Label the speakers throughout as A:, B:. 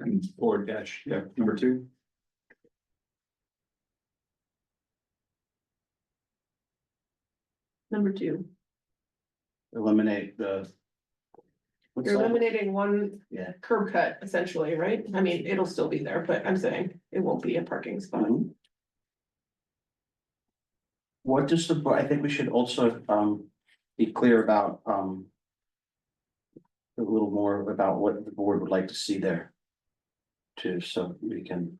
A: And four dash, yeah, number two.
B: number two.
C: eliminate the. what's
B: You're
C: that?
B: eliminating one
C: Yeah.
B: curb cut essentially, right? I mean, it'll still be there, but I'm saying it won't be a parking spot.
C: Mhm. What does the, bo- I think we should also, um, be clear about, um. A little more about what the board would like to see there. Too, so we can.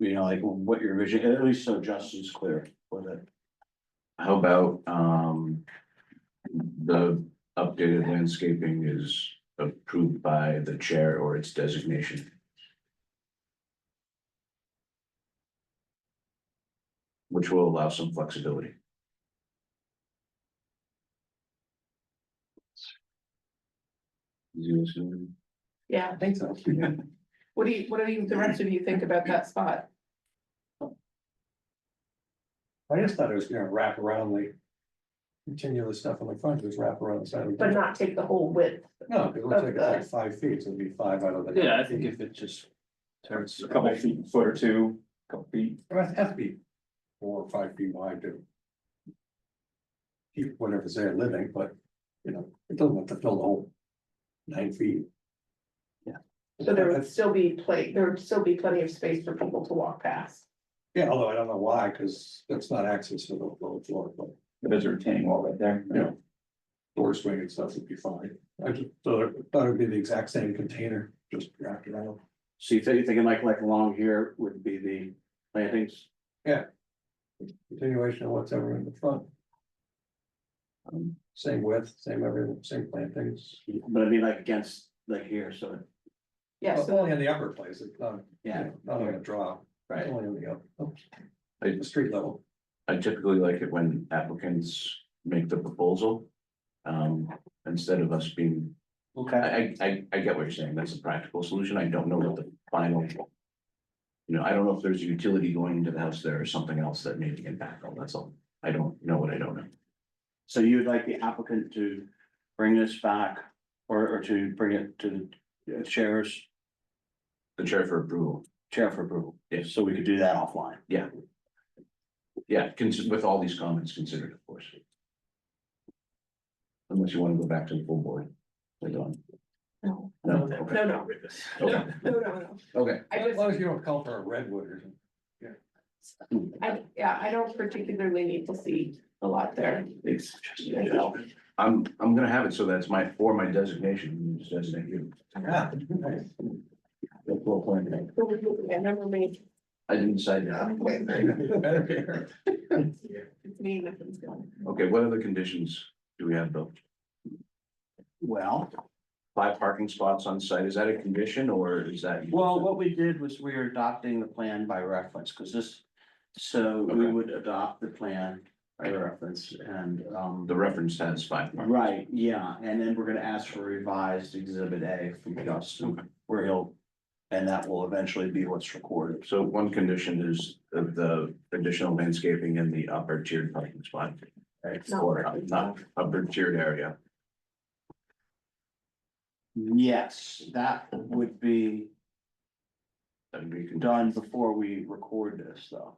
C: You know, like what your vision, at least so Justin's clear with it.
D: How about, um. The updated landscaping is approved by the chair or its designation. Which will allow some flexibility. You assume?
B: Yeah,
A: I think so.
B: what do you, what do you, the rest of you think about that spot?
E: I just thought it was gonna wrap around like. Continuous stuff on the front, just wrap around the side. of the-
B: But not take the whole width.
E: No, it looks like it's like five feet, so it'd be five out of the.
C: Yeah, I think if it just turns
A: A couple feet, foot or two, couple feet,
E: It has has to be four or five feet wide to. Keep whatever's there living, but, you know, it doesn't have to fill the whole nine feet.
C: Yeah.
B: So there would still be plenty, there would still be plenty of space for people to walk past.
E: Yeah, although I don't know why, because that's not access to the lower floor, but
A: but there's a retaining wall right there.
E: Yeah. door swing and stuff would be fine. I just thought it thought it'd be the exact same container, just wrapped around.
C: So you think, you're thinking like, like along here would be the plantings?
E: continuation of what's ever in the front. Um, same width, same everything, same plantings.
C: But I mean, like against, like here, so,
B: Yeah,
E: Well,
B: so
C: Oh,
E: Only in the upper place, it's not,
C: yeah,
E: not gonna draw,
C: right.
E: only in the upper,
D: I-
E: the street level.
D: I typically like it when applicants make the proposal. Um, instead of us being
C: Okay.
D: I, I, I, I get what you're saying. That's a practical solution. I don't know what the final. You know, I don't know if there's a utility going into the house there or something else that may be impactful. That's all. I don't know what I don't know.
C: So you would like the applicant to bring this back or, or to bring it to the chairs,
D: The chair for approval.
C: chair for approval?
D: Yes.
C: So we could do that offline.
D: Yeah, cons- with all these comments considered, of course. Unless you want to go back to the full board. Later on.
B: No.
D: No,
B: no,
D: okay.
B: no,
D: Okay,
B: no, no, no.
D: okay.
B: I
E: As
B: just,
E: long as you don't call for a redwood or something.
B: I, yeah, I don't particularly need to see a lot there.
D: It's just- I'm, I'm gonna have it so that's my, for my designation, you just designate you.
E: Yeah, nice.
D: The full plan.
B: I never made,
D: I didn't decide that.
E: Better be here.
B: it's me, nothing's going.
D: Okay, what other conditions do we have, Bill?
C: Well,
D: Five parking spots on site, is that a condition or is that?
C: well, what we did was we were adopting the plan by reference because this, so we
D: Okay.
C: would adopt the plan by reference and, um,
D: The reference has five. parking.
C: right, yeah. And then we're going to ask for revised exhibit A from Justin where he'll, and that will eventually be what's recorded.
D: So one condition is of the additional landscaping in the upper tiered parking spot. Right,
B: Not
D: or
B: parking
D: not upper tiered area.
C: Yes, that would be
D: That'd be, con-
C: done before we record this, though.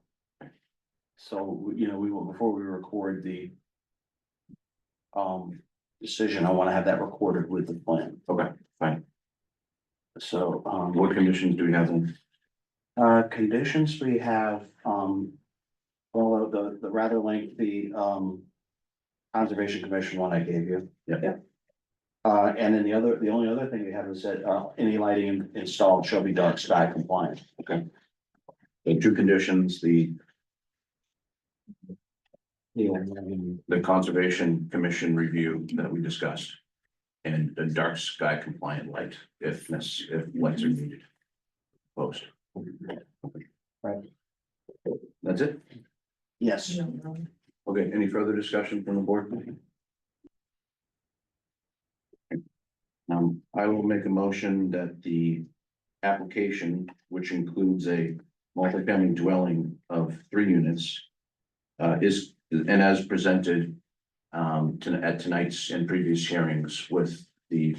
C: So, you know, we will, before we record the um, decision, I wanna have that recorded with the plan.
D: Okay, fine.
C: So, um,
D: what conditions do we have? then?
C: uh, conditions we have, um, well, uh, the, the rather lengthy, um, Conservation Commission one I gave you.
D: Yep.
B: Yep.
C: Uh, and then the other, the only other thing we have is that, uh, any lighting installed shall be dark sky compliant.
D: The two conditions, the,
C: Yeah.
D: the conservation commission review that we discussed. And the dark sky compliant light, if, necess- if lights are needed. Post.
C: Right.
D: That's it?
C: Yes,
D: Okay, any further discussion from the board? Um, I will make a motion that the application, which includes a multifamily dwelling of three units. Uh, is, and as presented, um, to, at tonight's and previous hearings with the